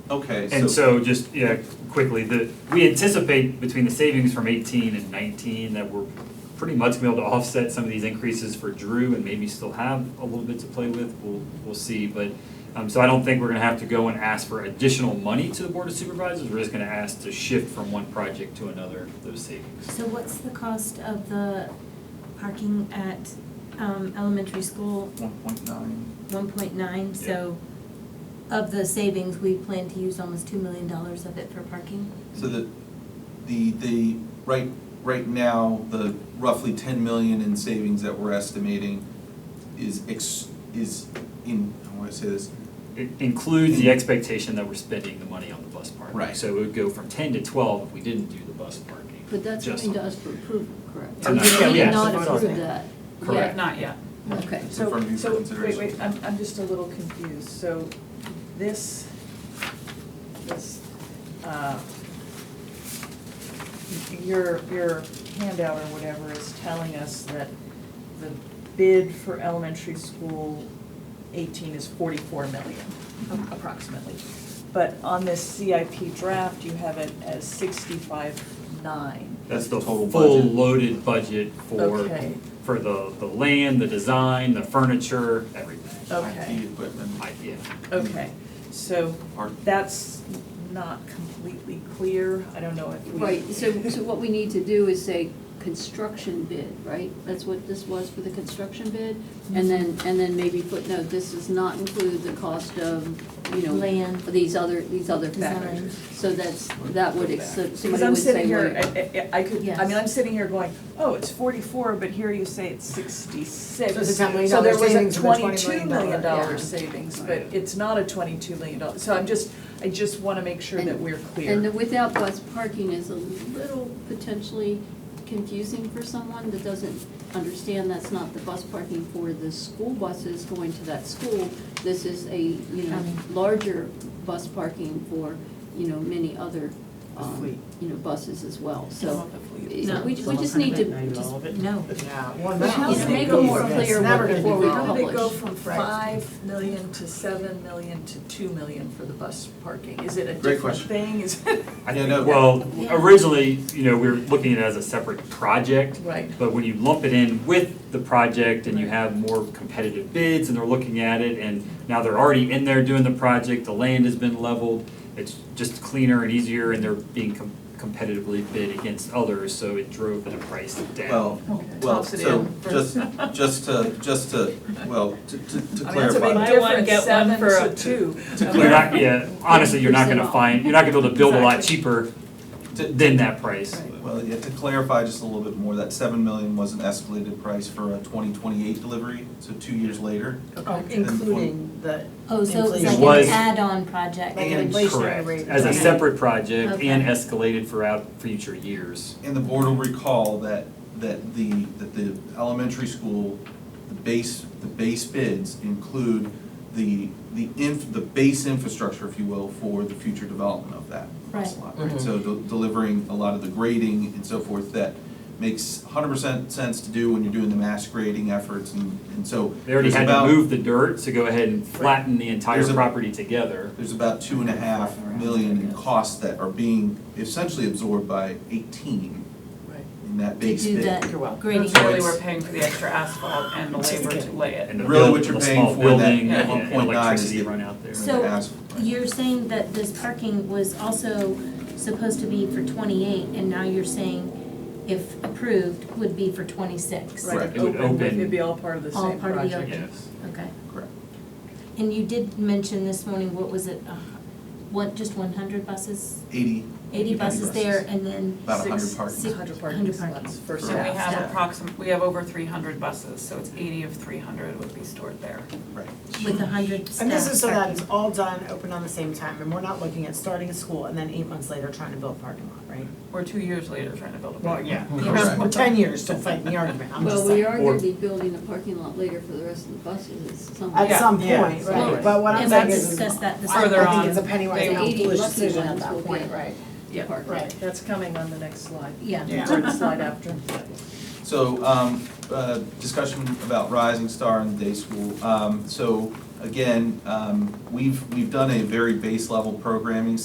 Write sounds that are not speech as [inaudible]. Okay, And so, so just, yeah, quickly, the, we anticipate between the savings from eighteen and nineteen that we're pretty much gonna be able to offset some of these increases for Drew and maybe still have a little bit to play with, we'll, we'll see, but, um, so I don't think we're gonna have to go and ask for additional money to the Board of Supervisors, we're just gonna ask to shift from one project to another those savings. So what's the cost of the parking at um, elementary school? one point nine, One point nine, so of the savings, we plan to use almost two million dollars of it for parking? so the, the, the, right, right now, the roughly ten million in savings that we're estimating is ex, is in, how do I say this? It includes the expectation that we're spending the money on the bus parking. Right. So it would go from ten to twelve if we didn't do the bus parking. But that's Just- coming to us for approval, correct? Tonight. Yeah, We yeah. did not approve that. Correct. Not yet. Yeah, Okay. So from you for So, so, wait, consideration. wait, I'm, I'm just a little confused, so this, this, uh, your, your handout or whatever is telling us that the bid for elementary school eighteen is forty-four million approximately. But on this CIP draft, you have it as sixty-five nine. That's the Total full budget. loaded budget for, Okay. for the, the land, the design, the furniture, everything. Okay, IT equipment, I- Yeah, okay, so art, That's not completely clear, I don't know if we. Right, so, so what we need to do is say construction bid, right? That's what this was for the construction bid? And then, and then maybe footnote, this does not include the cost of, you know, Land. these other, these other Design. factors. So that's, that would, ex- Because somebody I'm would say, sitting here, wait, I- I, I could, I mean, Yes. I'm sitting here going, oh, it's forty-four, but here you say it's sixty-six. So it's a $10 million So there was savings a and a $20 twenty-two million dollar- dollar Yeah. savings, but it's not a twenty-two million dollar, so I'm just, I just wanna make sure that And- we're clear. and the without bus parking is a little potentially confusing for someone that doesn't understand that's not the bus parking for the school buses going to that school. This is a, you know, County. larger bus parking for, you know, many other, The um, fleet. you know, buses as well, so. Hopefully. it- No. We, we just need to, just, No. Yeah, well, But now how it's do gonna they go go more from- clear it's never what- gonna before be we gone. How did it go publish. from Right. five million to seven million to two million for the bus parking? Is it a Great different question. thing? Is I Yeah, think, no. well, Yeah. originally, you know, we were looking at it as a separate project. Right. But when you lump it in with the project and you have more competitive bids and they're looking at it and now they're already in there doing the project, the land has been leveled, it's just cleaner and easier and they're being com- competitively bid against others, so it drove the price down. well, well, Tops it so, in just, first. just to, just to, well, to, to to I mean, that's a clarify. big Buy one, difference, get one seven for a- to two. To You're clear not, yeah, honestly, you're not gonna 50% off. find, you're not gonna be able to build a lot Exactly. cheaper To- than that price. Well, yeah, to clarify just a little bit more, that seven million was an escalated price for a twenty twenty-eight delivery, so two years later. Oh, Including the. Oh, so it's inflation. It was- like an add-on project? Like an And inflationary correct, rate. as a Okay. separate project and Okay. escalated throughout future years. And the board will recall that, that the, that the elementary school, the base, the base bids include the, the inf, the base infrastructure, if you will, for the future development of that bus Right. lot, Mm-hmm. right? So de- delivering a lot of the grading and so forth that makes hundred percent sense to do when you're doing the mass grading efforts and, and so. They already there's had to about- move the dirt to go ahead and flatten the entire There's a- property together. There's about two and a half million in costs that are being essentially absorbed by eighteen Right. in that To base bid. do You're the welcome. grading? So Really, it's- we're paying for the extra asphalt and the labor to lay it. And the Really build- what you're the paying small for in that building and- 1.9 and is electricity the- run out there. So Ask- You're saying that this parking was also supposed to be for twenty-eight, and now you're saying if approved, would be for twenty-six? Right. Right, It would open, open- it'd be all part of the All same project. part of the open. Yes. Okay. Correct. And you did mention this morning, what was it, uh, what, just one hundred buses? Eighty, Eighty buses there, and then about a hundred Six- parking. six- Hundred Hundred parking parking. spots for So So staff. we have Yeah. approxim, we have over three hundred buses, so it's eighty of three hundred would be stored there. Right. with a hundred staff. And this is so that parking. it's all done, open on the same time, and we're not looking at starting a school and then eight months later trying to build a parking lot, right? We're two years later trying to build a. Well, park. yeah, Correct. we're ten years, don't fight the argument, I'm just well, we saying. are Or- gonna be building a parking lot later for the rest of the buses, it's some. At Yeah. some Yeah. point, Right. right, but what I'm And we'll saying is, discuss that this I Further I on, think it's a penny they- wise, The pound 80 foolish bus decision at ones will that be- point, right? Yeah. Parking. Right. That's coming on the next slide, Yeah. Yeah. or the slide after. [laughs] So, um, uh, discussion about Rising Star and the day school. Um, so Again, um, we've, we've done a very base level programming